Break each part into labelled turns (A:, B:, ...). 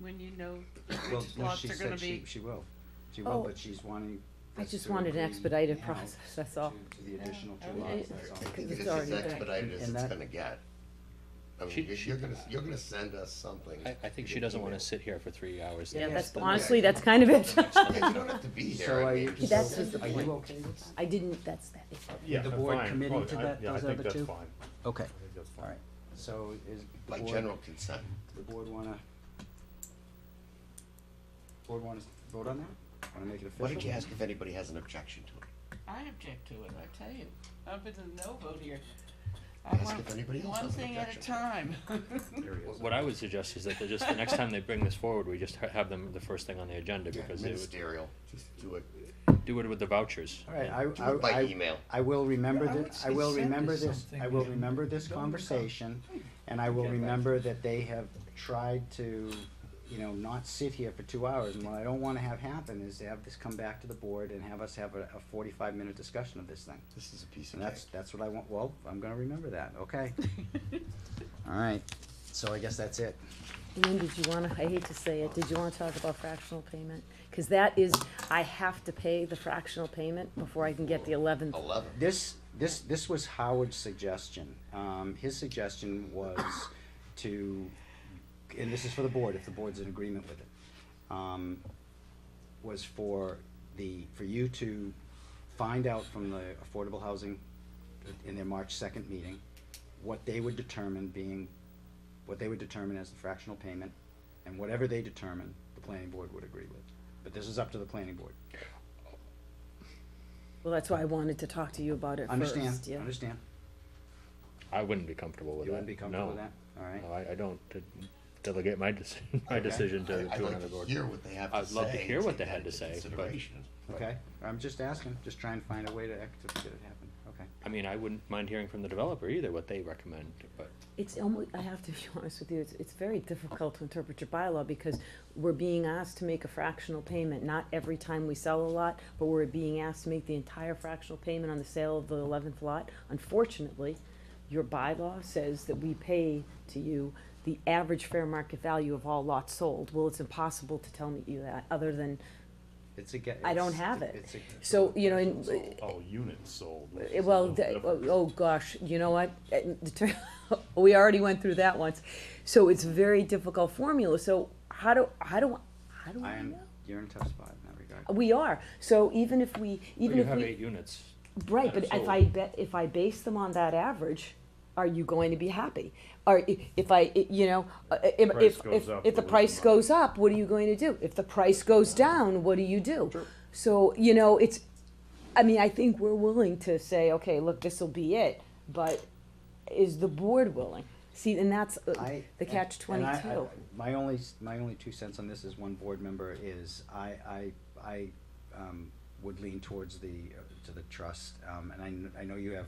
A: when you know
B: Well,
A: which
B: no,
A: lots
B: she
A: are gonna
B: said
A: be?
B: she, she will. She will,
C: Oh.
B: but she's wanting.
C: I
B: us
C: just
B: to
C: wanted an
B: agree
C: expedited
B: now
C: process, that's all.
B: to- To the additional two
A: Yeah.
B: lots,
C: Yeah.
B: that's all.
C: Because
D: This
C: it's
D: is
C: already back.
D: expedited as
B: And
D: it's
B: that-
D: gonna get. I mean,
E: She-
D: you're,
E: she-
D: you're gonna, you're gonna send us something.
E: I, I
D: via
E: think she doesn't wanna
D: email.
E: sit here for three hours.
C: Yeah,
E: Yes,
C: that's,
E: the
C: honestly, that's
E: next-
C: kind of it.
D: I mean, you don't have to be here.
B: So
D: I
B: are
D: mean,
B: you, so
C: That's just the
B: are
C: point.
B: you okay with that?
C: I didn't, that's, that is,
F: Yeah,
B: the
F: I'm
B: board
F: fine.
B: committing
F: Oh,
B: to
F: I-
B: that-
F: yeah, I
B: those
F: think
B: other
F: that's
B: two?
F: fine.
B: Okay,
F: I think that's fine.
B: all right. So is the
D: By
B: board,
D: general consent.
B: the board wanna? Board wanna vote on that? Wanna make it official?
D: Why don't you ask if anybody has an objection to it?
A: I object to it, I tell you. I've been a no vote here. I
D: Ask
A: want
D: if anybody else
A: one
D: has an
A: thing at a
D: objection.
A: time.
F: There he is.
E: What I would suggest is that they just, the next time they bring this forward, we just ha- have them the first thing on the agenda
D: Yeah,
E: because they would
D: Ministerial, just do it,
E: do it with the vouchers.
B: All right,
D: do
B: I, I,
D: it by
B: I,
D: email.
B: I will remember
G: Yeah, I would
B: this, I
G: say
B: will
G: send us
B: remember this,
G: something
B: I will
G: and
B: remember this
G: don't-
B: conversation,
G: Hmm.
B: and I will remember that they have tried to, you know, not sit here for two hours, and what I don't wanna have happen is to have this come back to the board and have us have a, a forty-five minute discussion of this thing.
D: This is a piece of
B: And that's,
D: cake.
B: that's what I want, well, I'm gonna remember that, okay? All right, so I guess that's it.
C: and then did you wanna, I hate to say it, did you wanna talk about fractional payment? Cause that is, I have to pay the fractional payment before I can get the eleventh.
B: Oh.
D: Eleven.
B: This, this, this was Howard's suggestion. Um, his suggestion was to, and this is for the board, if the board's in agreement with it, um, was for the, for you to find out from the Affordable Housing in their March second meeting, what they would determine being, what they would determine as the fractional payment, and whatever they determine, the planning board would agree with. But this is up to the planning board.
C: Well, that's why I wanted to talk to you about it first, yeah.
B: Understand, understand?
E: I wouldn't be comfortable with that.
B: You wouldn't be comfortable
E: no.
B: with that? All right.
E: No, I, I don't de- delegate my decision, my
B: Okay.
E: decision to,
D: I'd
E: to
D: like
E: another
D: to
E: board.
D: hear what they have to say.
E: I'd love to
D: and
E: hear what
D: take
E: they
D: that
E: had to
D: into
E: say, but-
D: consideration.
B: Okay, I'm just asking, just trying to find a way to act to get it happen, okay.
E: I mean, I wouldn't mind hearing from the developer either, what they recommend, but
C: It's almost, I have to be honest with you, it's, it's very difficult to interpret your bylaw because we're being asked to make a fractional payment, not every time we sell a lot, but we're being asked to make the entire fractional payment on the sale of the eleventh lot. Unfortunately, your bylaw says that we pay to you the average fair market value of all lots sold. Well, it's impossible to tell me you that, other than
B: It's a get.
C: I don't
B: it's-
C: have it.
B: it's a-
C: So, you know, in-
F: Sold. Oh, units sold.
B: Uh,
F: which
C: Eh,
F: is a
C: Well,
F: little
C: the- oh
F: different.
C: oh, gosh, you know what? Eh, the ter- We already went through that once. So it's a very difficult formula. So how do, how do, how do
B: I
C: I
B: am,
C: know?
B: you're in a tough spot in that regard.
C: We are. So even if we, even
E: you
C: if
E: have
C: we,
E: eight units.
C: right, but if I bet, if I base them on that average, are you going to be happy? Or i- if I, i- you know, uh, if,
F: Price
C: if,
F: goes
C: if,
F: up,
C: if the
F: we're losing
C: price
F: money.
C: goes up, what are you going to do? If the price goes down, what do you do? So, you know, it's, I mean, I think we're willing to say, okay, look, this'll be it, but is the board willing? See, and that's uh,
B: I-
C: the catch
B: and I- I-
C: twenty-two.
B: My only, s- my only two cents on this is one board member is, I, I, I, um, would lean towards the, uh, to the trust, um, and I, kn- I know you have,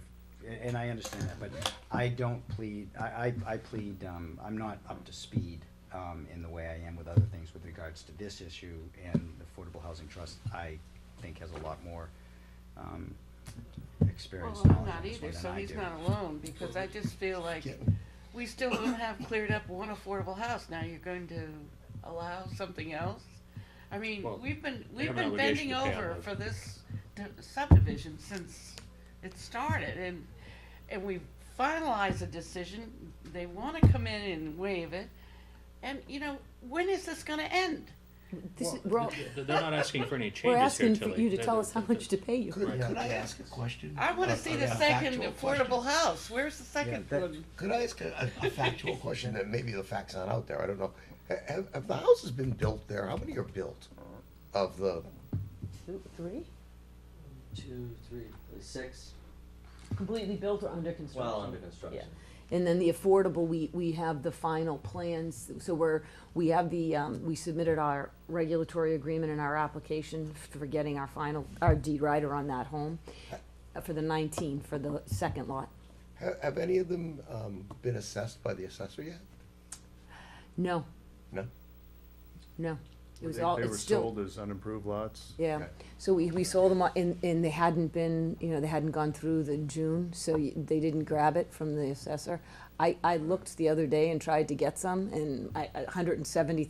B: a- and I understand that, but I don't plead, I, I, I plead, um, I'm not up to speed, um, in the way I am with other things with regards to this issue, and the Affordable Housing Trust, I think has a lot more, um, experience
A: Well,
B: and
A: I'm
B: knowledge
A: not
B: in this way
A: either,
B: than
A: so
B: I
A: he's
B: do.
A: not alone, because I just feel like
D: Getting-
A: we still don't have cleared up one affordable house. Now you're going to allow something else? I mean,
E: Well,
A: we've been,
E: they
A: we've
E: have an
A: been bending
E: obligation to pay on
A: over
E: those.
A: for this d- subdivision since it started and, and we finalized a decision. They wanna come in and waive it. And, you know, when is this gonna end?
C: This is, we're, all-
E: They're not asking for any changes here,
C: we're asking for
E: Tilly.
C: you to
E: They're-
C: tell
E: they're-
C: us how
E: they're-
C: much to pay you.
D: Could,
E: Right.
D: could I ask a question?
A: I
E: Uh,
A: wanna
D: A-
A: see
D: a-
A: the
D: a
A: second
D: factual
A: affordable
D: question.
A: house. Where's the second
B: that-
A: one?
D: Could I ask a, a factual question that maybe the fact's not out there? I don't know. Ha- Have, have the houses been built there? How many are built of the,
C: Two, Three?
H: two, three, six,
C: Completely built or under construction?
H: well, under construction.
C: And then the affordable, we, we have the final plans, so we're, we have the, um, we submitted our regulatory agreement and our application for getting our final, our deed rider on that home uh, for the nineteen, for the second lot.
D: have, have any of them, um, been assessed by the assessor yet?
C: No,
D: No?
C: no, it
F: Were
C: was
F: they-
C: all,
F: They were
C: it's still.
F: sold as unimproved lots.
C: Yeah,
D: Okay.
C: so we, we sold them, all- and, and they hadn't been, you know, they hadn't gone through the June, so y- they didn't grab it from the assessor. I, I looked the other day and tried to get some, and I, a hundred and seventy